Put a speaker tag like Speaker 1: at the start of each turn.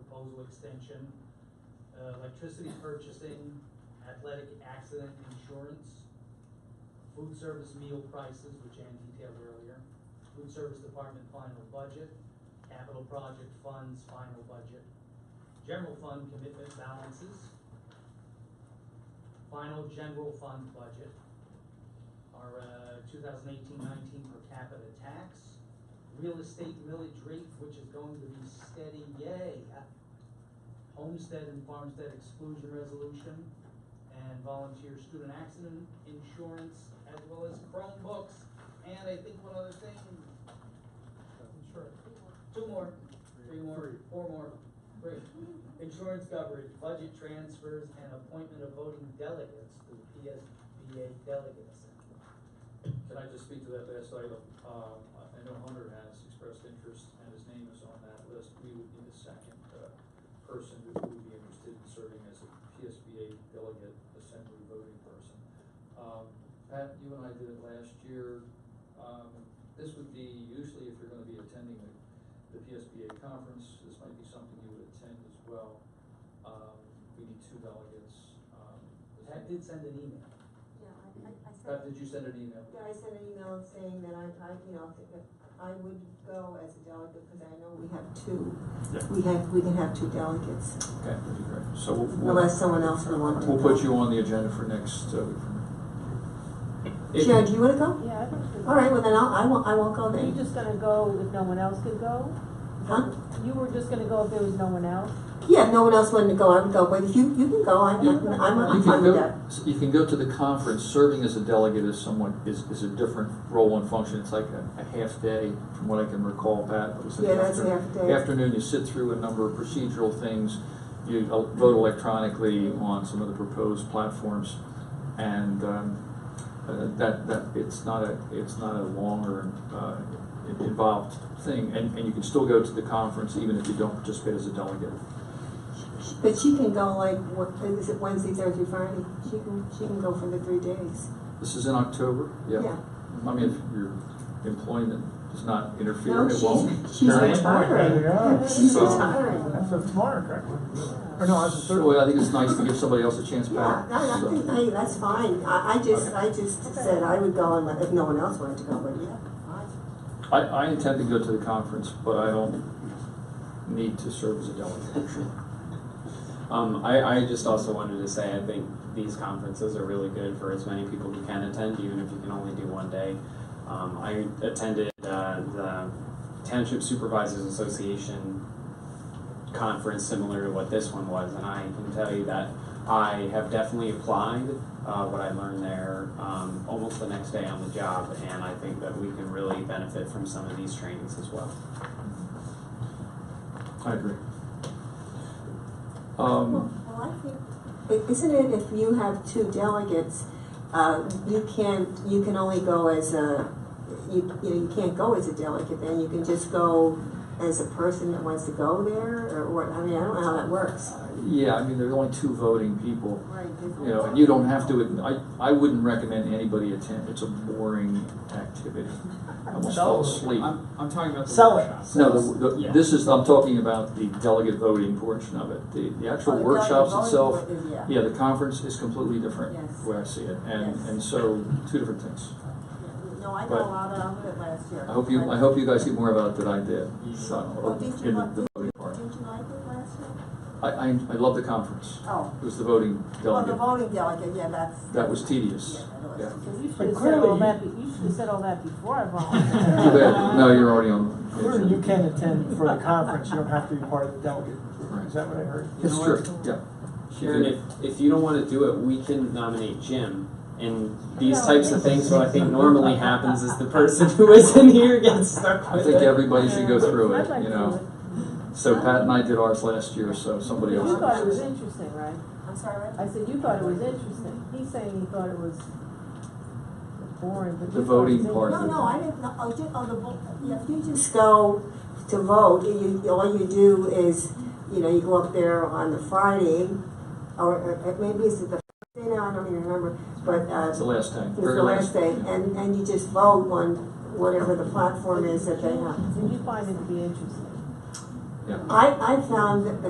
Speaker 1: proposal extension, uh, electricity purchasing, athletic accident insurance, food service meal prices, which Ann detailed earlier, food service department final budget, capital project funds final budget, general fund commitment balances, final general fund budget, our uh, 2018-19 per capita tax, real estate millage rate, which is going to be steady, yay. Homestead and farmstead exclusion resolution, and volunteer student accident insurance, as well as Chromebooks, and I think one other thing, insurance. Two more, three more, four more, great. Insurance coverage, budget transfers, and appointment of voting delegates to the PSBA delegate assembly.
Speaker 2: Can I just speak to that last item? Um, I I know Hunter has expressed interest and his name is on that list. We would need a second, uh, person who would be interested in serving as a PSBA delegate assembly voting person. Um, Pat, you and I did it last year. Um, this would be usually if you're gonna be attending the, the PSBA conference, this might be something you would attend as well. Um, we need two delegates. Um, is
Speaker 1: Pat
Speaker 2: that-
Speaker 1: did send an email.
Speaker 3: Yeah, I, I, I
Speaker 2: Pat,
Speaker 3: sent,
Speaker 2: did you send an email?
Speaker 3: yeah, I sent an email saying that I, I, you know, that I would go as a delegate, because I know we have two.
Speaker 2: Yeah.
Speaker 3: We have, we can have two delegates,
Speaker 2: Okay, that'd be great. So we'll- we'll-
Speaker 3: unless someone else would want to.
Speaker 2: We'll put you on the agenda for next, uh. if-
Speaker 3: Sharon, do you wanna go?
Speaker 4: Yeah, I don't think.
Speaker 3: All right, well then I'll, I won't, I won't go
Speaker 4: Are you
Speaker 3: then.
Speaker 4: just gonna go if no one else could go?
Speaker 3: Huh?
Speaker 4: You were just gonna go if there was no one else?
Speaker 3: Yeah, if no one else wanted to go, I would go, but if you, you can go, I'm,
Speaker 2: You-
Speaker 3: I'm, I'm I'm
Speaker 2: You
Speaker 3: fine
Speaker 2: can
Speaker 3: with
Speaker 2: go,
Speaker 3: that.
Speaker 2: you can go to the conference, serving as a delegate is somewhat, is, is a different role and function, it's like a, a half day, from what I can recall, Pat. It was an
Speaker 3: Yeah, that's
Speaker 2: afternoon.
Speaker 3: half day.
Speaker 2: Afternoon, you sit through a number of procedural things, you el- vote electronically on some of the proposed platforms, and, um, uh, that, that, it's not a, it's not a longer, uh, in- involved thing, and, and you can still go to the conference even if you don't participate as a delegate.
Speaker 3: She- But she can go like, what, is it Wednesday, Thursday, Friday? She can, she can go for the three days.
Speaker 2: This is in October, yeah. I mean, if your employment does not interfere,
Speaker 3: No,
Speaker 2: it won't.
Speaker 3: she's, she's
Speaker 5: Very
Speaker 3: retiring.
Speaker 5: important.
Speaker 3: She's
Speaker 2: So-
Speaker 3: retiring.
Speaker 5: That's a tomorrow, correct? Or no, that's a third.
Speaker 2: So I think it's nice to give somebody else a chance
Speaker 3: Yeah,
Speaker 2: back.
Speaker 3: I, I
Speaker 2: so.
Speaker 3: think, hey, that's fine, I, I just, I just
Speaker 4: Okay.
Speaker 3: said I would go and if no one else wanted to go, but yeah.
Speaker 2: I, I intend to go to the conference, but I don't need to serve as a delegate.
Speaker 6: Um, I, I just also wanted to say I think these conferences are really good for as many people who can attend, even if you can only do one day. Um, I attended uh, the Township Supervisors Association conference similar to what this one was, and I can tell you that I have definitely applied uh, what I learned there um, almost the next day on the job, and I think that we can really benefit from some of these trainings as well.
Speaker 2: I agree. Um,
Speaker 3: Well, I think, i- isn't it if you have two delegates, uh, you can't, you can only go as a, you, you know, you can't go as a delegate, then you can just go as a person that wants to go there, or, what? I mean, I don't know how that works.
Speaker 2: yeah, I mean, there are only two voting people,
Speaker 3: Right.
Speaker 2: you know, and you don't have to, I, I wouldn't recommend anybody attend, it's a boring activity. I almost fell asleep.
Speaker 6: I'm, I'm talking about the
Speaker 5: Sell it.
Speaker 6: workshops.
Speaker 2: No, the, the,
Speaker 6: Yeah.
Speaker 2: this is, I'm talking about the delegate voting portion of it. The, the
Speaker 3: Oh,
Speaker 2: actual workshops itself,
Speaker 3: Yeah,
Speaker 2: yeah, the conference is completely different,
Speaker 3: Yes.
Speaker 2: the way I see it. And,
Speaker 3: Yes.
Speaker 2: and so, two different things.
Speaker 3: no, I
Speaker 2: But-
Speaker 3: got a lot out of it last year.
Speaker 2: I hope you, I hope you guys see more about it than I did, so,
Speaker 3: Oh, did you
Speaker 2: in the,
Speaker 3: like-
Speaker 2: the voting part.
Speaker 3: Didn't you like it last year?
Speaker 2: I, I, I love the conference.
Speaker 3: Oh,
Speaker 2: It was the voting
Speaker 3: well, the
Speaker 2: delegate.
Speaker 3: voting delegate, yeah, that's.
Speaker 2: That was
Speaker 3: Yeah,
Speaker 2: tedious.
Speaker 3: that
Speaker 2: Yeah.
Speaker 3: was.
Speaker 4: Cause you should've
Speaker 5: But
Speaker 4: said
Speaker 5: clearly
Speaker 4: all
Speaker 5: you-
Speaker 4: that, be- you should've said all that before I
Speaker 2: Too
Speaker 4: volunteered.
Speaker 2: bad, no, you're already on. the
Speaker 5: Clearly, you
Speaker 2: agenda.
Speaker 5: can attend for the conference, you don't have to be part of the delegate. Is
Speaker 2: Right.
Speaker 5: that what I heard?
Speaker 2: It's
Speaker 6: You know
Speaker 2: true, yeah.
Speaker 6: Sharon, if, if you don't want to do it, we can nominate Jim. And these
Speaker 4: No,
Speaker 6: types of
Speaker 4: it's-
Speaker 6: things, what I think normally happens is the person who isn't here gets stuck
Speaker 2: I
Speaker 6: with
Speaker 2: think
Speaker 6: it.
Speaker 2: everybody should go through
Speaker 4: I'd like
Speaker 2: it, you
Speaker 4: to do
Speaker 2: know.
Speaker 4: it.
Speaker 2: So Pat and I did ours last year, so somebody
Speaker 4: You
Speaker 2: else.
Speaker 4: thought it was interesting, right?
Speaker 3: I'm sorry, what?
Speaker 4: I said, you thought it was interesting. He's saying he thought it was boring, but you
Speaker 2: The
Speaker 4: thought it
Speaker 2: voting
Speaker 4: was
Speaker 2: part.
Speaker 3: No, no, I didn't, know. oh, ju- oh, the, vo- yeah, if you just go to vote, you, you- all you do is, you know, you go up there on the Friday, or, or maybe it's the Friday now, I don't even remember, but, uh,
Speaker 2: It's the last time,
Speaker 3: it's
Speaker 2: very
Speaker 3: the
Speaker 2: last.
Speaker 3: last day, and, and you just vote on whatever the platform is that they have.
Speaker 4: interesting. Did you find it to be interesting?
Speaker 2: Yeah.
Speaker 3: I, I found that the